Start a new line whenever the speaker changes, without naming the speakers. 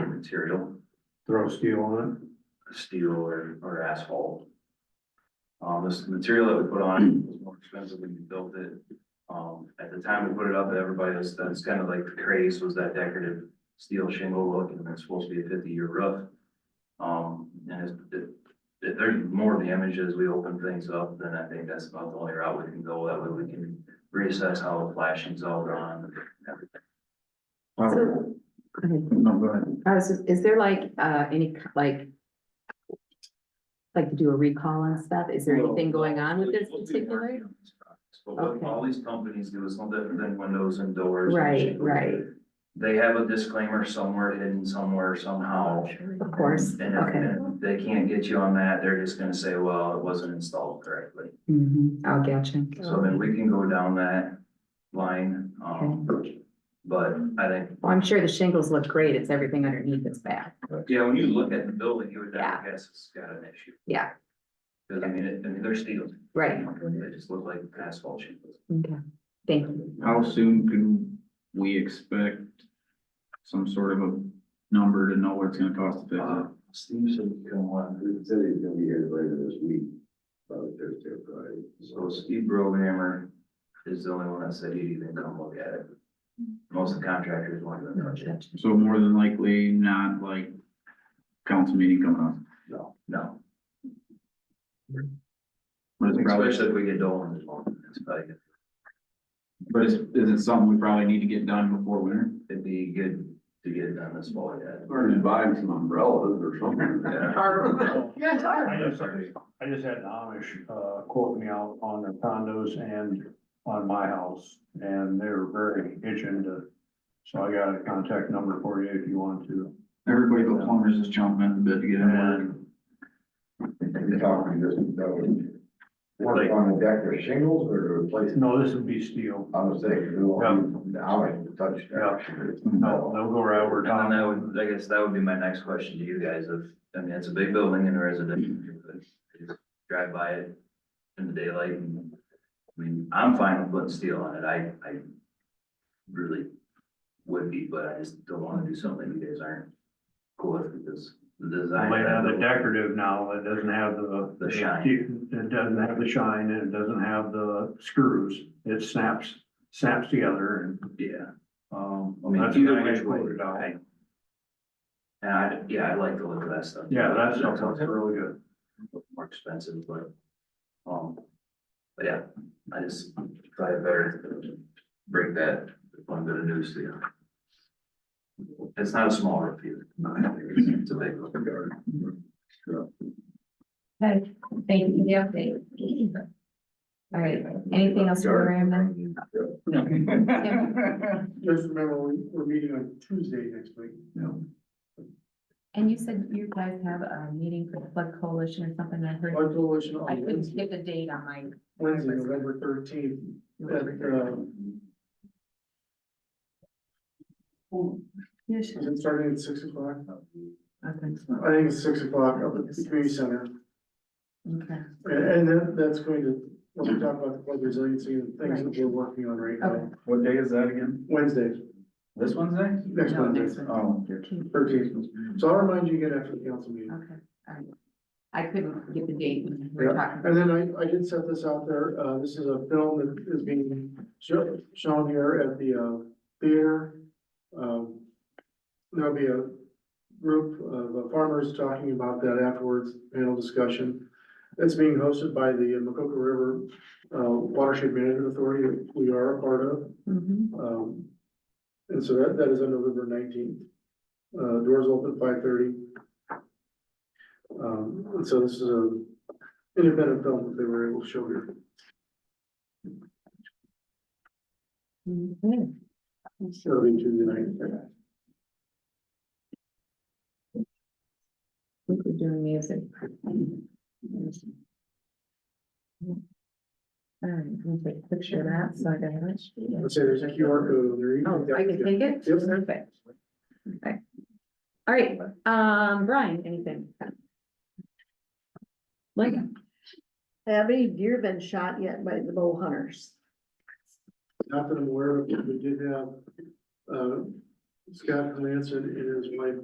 material,
throw steel on
steel or, or asphalt. Um, this material that we put on was more expensive when we built it. Um, at the time we put it up, everybody was, that's kind of like the craze was that decorative steel shingle look, and it's supposed to be a fifty-year roof. Um, and it's, it, it- there's more damage as we open things up, then I think that's about the only route we can go, that way we can reassess how the flashing's all gone.
So, okay,
No, go ahead.
Mm-hmm. I was just- is there like, uh, any, k- like, like to do a recall on stuff? Is there anything going on with this
We'll be
particular?
working on these products, But what
Okay.
all these companies do is no different than windows and doors. and
Right,
shingles.
right,
They have a disclaimer somewhere hidden somewhere somehow.
of course,
And if-
okay.
and if they can't get you on that, they're just gonna say, well, it wasn't installed correctly.
Mm-hmm.
Mhm,
Oh,
I'll get you.
So then we can go down that line, um, but I think,
Well, I'm sure the shingles look great, it's everything underneath that's bad.
yeah, when you look at the building, you would
Yeah.
never guess it's got an issue.
Yeah.
Cause I mean, it, I mean, they're steel.
Right,
They just look like asphalt shingles.
okay, thank you.
How soon can we expect some sort of a number to know what it's gonna cost to fix
Uh,
it?
Steve said he come on,
He said he's gonna be here later this week, probably Thursday or Friday.
so Steve Brohammer is the only one that said he'd even come look at it. Most of the contractors won't even touch it,
So more than likely, not like council meeting coming up,
no, no,
but it's probably,
especially if we get Dolan involved, it's probably, good.
but is, is it something we probably need to get done before winter?
it'd be good to get it done this fall, yeah.
Or just buying some umbrellas or something.
I just, I just had an Amish, uh, quote me out on their condos and on my house, and they were very itching to. So I got a contact number for you if you want to.
Everybody but plumbers is chomping at the bit to get in there.
And
You're talking just, that would, work on the deck or shingles or replace,
no, this would be steel.
I was saying, do all, now I can touch that.
No, they'll go right over
And then
top.
that would, I guess that would be my next question to you guys of, I mean, it's a big building and a residential. neighborhood. You just Drive by it in the daylight and, I mean, I'm fine with putting steel on it. I, I really would be, but I just don't want to do something you guys aren't cool with because the
They
design.
have the decorative now, it doesn't have the.
The shine.
It doesn't have the shine, and it doesn't have the screws, it snaps, snaps together and,
Yeah.
um.
I mean,
that's
either
what I
which way.
quoted out.
I- And I, yeah, I like the look of that stuff.
Yeah, that's,
That
that's
sounds really
really good.
more expensive, but, um, but yeah, I just try to better break that one bit of news to you. It's not a small review, it's a big one.
Okay, thank you for the update. All right, anything else for Graham then?
Just remember, we- we're meeting on Tuesday next week.
And you said you guys have a meeting for the flood coalition or something, I heard,
Blood coalition
I
on
couldn't
Wednesday,
get the date on my.
Wednesday, November thirteenth, at, um,
Yes,
is it starting at six o'clock?
I think so.
I think it's six o'clock up at the community center.
Okay,
And, and that, that's going to, when we talk about the flood resiliency and things that we're working on right now.
Okay.
What day is that again?
Wednesday,
This Wednesday?
next
No, next
Wednesday,
one.
Oh, okay.
thirteenth. So I'll remind you again after the council meeting.
Okay, all right. I couldn't get the date when we were
Yeah,
talking.
and then I, I did set this out there, uh, this is a film that is being sho- shown here at the, uh, theater. Um, there'll be a group of uh, farmers talking about that afterwards, panel discussion. It's being hosted by the Macoka River, uh, Watershed Management Authority, which we are a part of.
Mhm.
Um, and so that, that is on November nineteenth. Uh, doors open five thirty. Um, and so this is a independent film that they were able to show here.
Mhm.
It'll be Tuesday night.
We could do music. All right, we'll take a picture of that, so I got it.
Let's say there's a QR code on there. you
Oh,
can-
I can take it?
Yep.
Perfect. Okay. All right, um, Brian, anything? Like,
Have any deer been shot yet by the bow hunters?
Not that I'm aware of, but we did have, uh, Scott Glanson and his wife